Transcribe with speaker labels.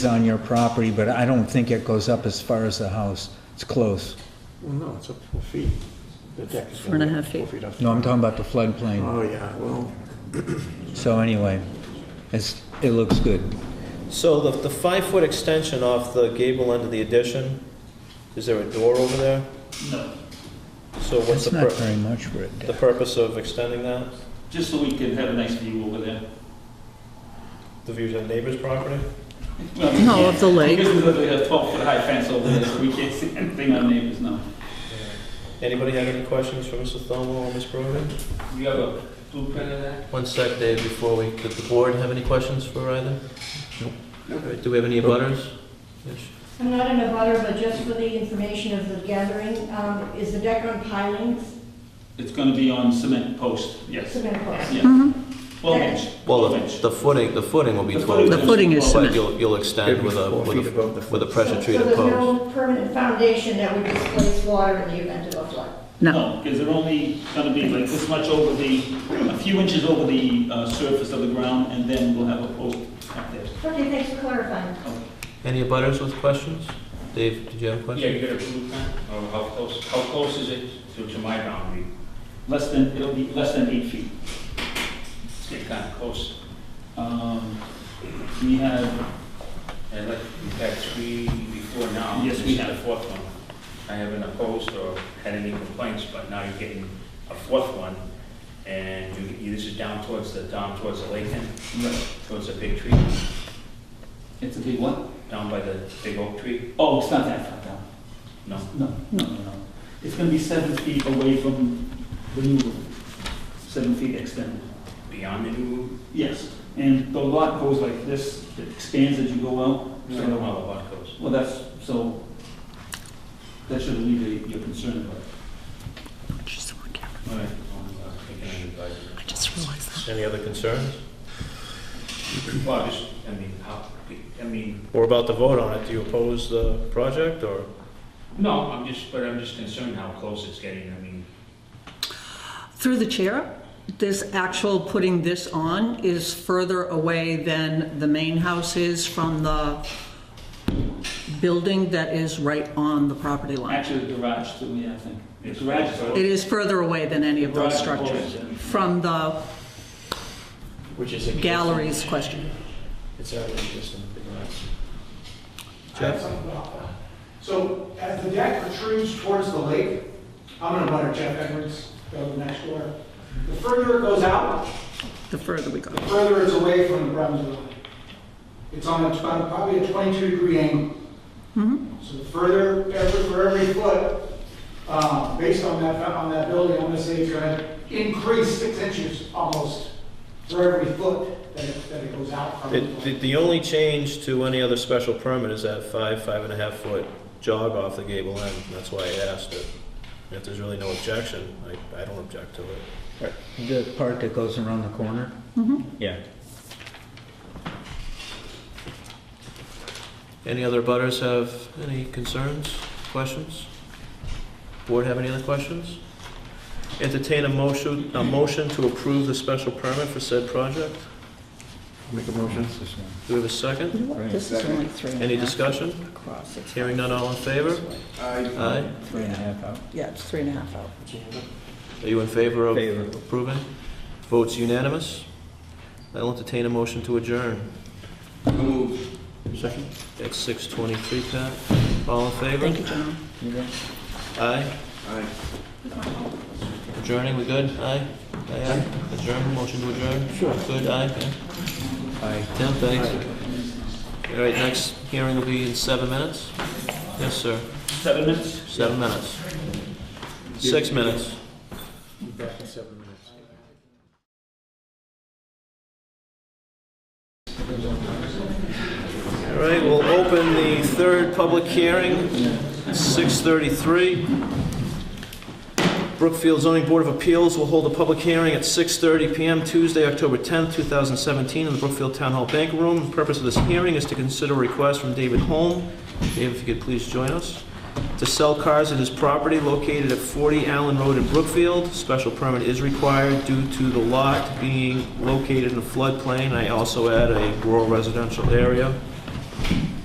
Speaker 1: on your property, but I don't think it goes up as far as the house. It's close.
Speaker 2: Well, no, it's up four feet. The deck is.
Speaker 3: Four and a
Speaker 2: gonna be
Speaker 3: half
Speaker 2: four
Speaker 3: feet.
Speaker 2: up.
Speaker 1: No, I'm talking about the floodplain.
Speaker 2: Oh, yeah, well,
Speaker 1: So anyway, it's, it looks good.
Speaker 4: So the, the five-foot extension off the gable end of the addition, is there a door over there?
Speaker 5: No,
Speaker 4: So what's
Speaker 1: It's
Speaker 4: the,
Speaker 1: not
Speaker 4: pur-
Speaker 1: very much for a
Speaker 4: the
Speaker 1: deck.
Speaker 4: purpose of extending that?
Speaker 5: just so we can have a nice view over there.
Speaker 4: The views of the neighbor's property?
Speaker 5: Well, we
Speaker 3: No,
Speaker 5: can't-
Speaker 3: of the lake.
Speaker 5: Because we literally have twelve foot high fence over there, so we can't see anything on neighbors now.
Speaker 4: Anybody have any questions for Mr. Thomo or Ms. Brogan?
Speaker 5: You have a blueprint of that?
Speaker 4: One sec, Dave, before we, did the board have any questions for either? All right, do we have any butters?
Speaker 6: I'm not in a butter, but just for the information of the gathering, um, is the deck on pilings,
Speaker 5: It's gonna be on cement post, yes.
Speaker 6: cement post?
Speaker 5: Yeah.
Speaker 3: Mhm.
Speaker 5: Twelve inch,
Speaker 7: Well,
Speaker 5: twelve
Speaker 7: the
Speaker 5: inch.
Speaker 7: the footing, the footing will be
Speaker 5: The
Speaker 7: 12
Speaker 3: The
Speaker 7: inches,
Speaker 3: footing is
Speaker 7: but
Speaker 3: cement.
Speaker 7: you'll, you'll extend
Speaker 2: it'd be
Speaker 7: with a,
Speaker 2: four feet
Speaker 7: with a,
Speaker 2: above the.
Speaker 7: with a
Speaker 2: foot.
Speaker 7: pressure
Speaker 6: So
Speaker 7: treated
Speaker 6: there's
Speaker 7: post.
Speaker 6: no permanent foundation that would displace water in the event of a flood?
Speaker 3: No,
Speaker 5: Because they're only gonna be like this much over the, a few inches over the uh, surface of the ground, and then we'll have a post up there.
Speaker 6: Okay, thanks for clarifying.
Speaker 4: Any butters with questions? Dave, did you have a
Speaker 8: Yeah,
Speaker 4: question?
Speaker 8: you got a blueprint, or how close, how close is it to, to my boundary?
Speaker 5: Less than, it'll be less than eight feet.
Speaker 8: It's getting kind of close.
Speaker 5: Um, We have,
Speaker 8: And like, we've had three before now.
Speaker 5: Yes,
Speaker 8: This
Speaker 5: we
Speaker 8: is
Speaker 5: have.
Speaker 8: The fourth one. I haven't opposed or had any complaints, but now you're getting a fourth one. And you, you- this is down towards the, down towards the lake end, towards the big tree,
Speaker 5: it's a big one?
Speaker 8: down by the big oak tree.
Speaker 5: Oh, it's not that far down.
Speaker 8: No,
Speaker 5: No, no, no, no. It's gonna be seven feet away from the new room, seven feet extended.
Speaker 8: beyond the new roof.
Speaker 5: Yes, and the lot goes like this, it expands as you go out.
Speaker 8: I don't know how the lot goes.
Speaker 5: Well, that's, so, that should alleviate your concern about it.
Speaker 3: just one camera.
Speaker 8: All right, well, I'm taking it as advisement.
Speaker 3: I just realized that.
Speaker 4: Any other concerns?
Speaker 8: Well, just, I mean, how, I mean,
Speaker 4: We're about to vote on it. Do you oppose the project, or?
Speaker 8: No, I'm just, but I'm just concerned how close it's getting, I mean,
Speaker 3: Through the chair, this actual putting this on is further away than the main house is from the building that is right on the property line.
Speaker 5: Actually, the garage too, yeah, I think. The
Speaker 8: Yes.
Speaker 5: garage is
Speaker 3: It is further away than any of those
Speaker 5: Garage closes
Speaker 3: structures
Speaker 5: it.
Speaker 3: from the
Speaker 2: Which is. existing.
Speaker 3: galleries question.
Speaker 2: It's already existing,
Speaker 4: Jeff?
Speaker 9: So as the deck protrudes towards the lake, I'm gonna butter Jeff Edwards, go next door. The further it goes out,
Speaker 3: The further we go.
Speaker 9: the further it's away from the Brunswick line. It's on a- about probably a 22 degree angle.
Speaker 3: Mhm.
Speaker 9: So the further, every- for every foot, uh, based on that, on that building, I'm gonna say it's gonna increase six inches almost for every foot that it, that it goes out from.
Speaker 4: The,
Speaker 9: the lake.
Speaker 4: the- the only change to any other special permit is that five, five and a half foot jog off the gable end, that's why I asked it. If there's really no objection, I, I don't object to it.
Speaker 1: The part that goes around the corner?
Speaker 4: Yeah. Any other butters have any concerns, questions? Board have any other questions? Entertain a motion, a motion to approve the special permit for said project?
Speaker 2: Make a motion.
Speaker 1: It's this one.
Speaker 4: Do we have a second?
Speaker 3: This is only three and a
Speaker 4: Any
Speaker 3: half
Speaker 4: discussion?
Speaker 3: across. It's-
Speaker 4: Hearing none, all in favor? Aye.
Speaker 1: Three and a half out.
Speaker 3: Yeah, it's three and a half out.
Speaker 4: Are you in favor of
Speaker 1: Favor.
Speaker 4: approving? Votes unanimous. I'll entertain a motion to adjourn
Speaker 2: Second?
Speaker 4: at 6:23, Pat. All in favor?
Speaker 3: Thank you, John.
Speaker 1: You got it?
Speaker 4: Aye.
Speaker 2: Aye.
Speaker 4: Adjourning, we good? Aye? Aye, aye. Adjourn, motion to adjourn? Sure. Good, aye, yeah?
Speaker 1: Aye.
Speaker 4: Tim, thanks. All right, next hearing will be in seven minutes? Yes, sir.
Speaker 5: seven minutes?
Speaker 4: Seven minutes. Six minutes.
Speaker 2: Back in seven minutes.
Speaker 4: All right, we'll open the third public hearing, 6:33. Brookfield Zoning Board of Appeals will hold a public hearing at 6:30 PM Tuesday, October 10th, 2017, in the Brookfield Town Hall Bank Room. The purpose of this hearing is to consider a request from David Holm, Dave, if you could please join us, to sell cars at his property located at 40 Allen Road in Brookfield. Special permit is required due to the lot being located in a floodplain. I also add a rural residential area.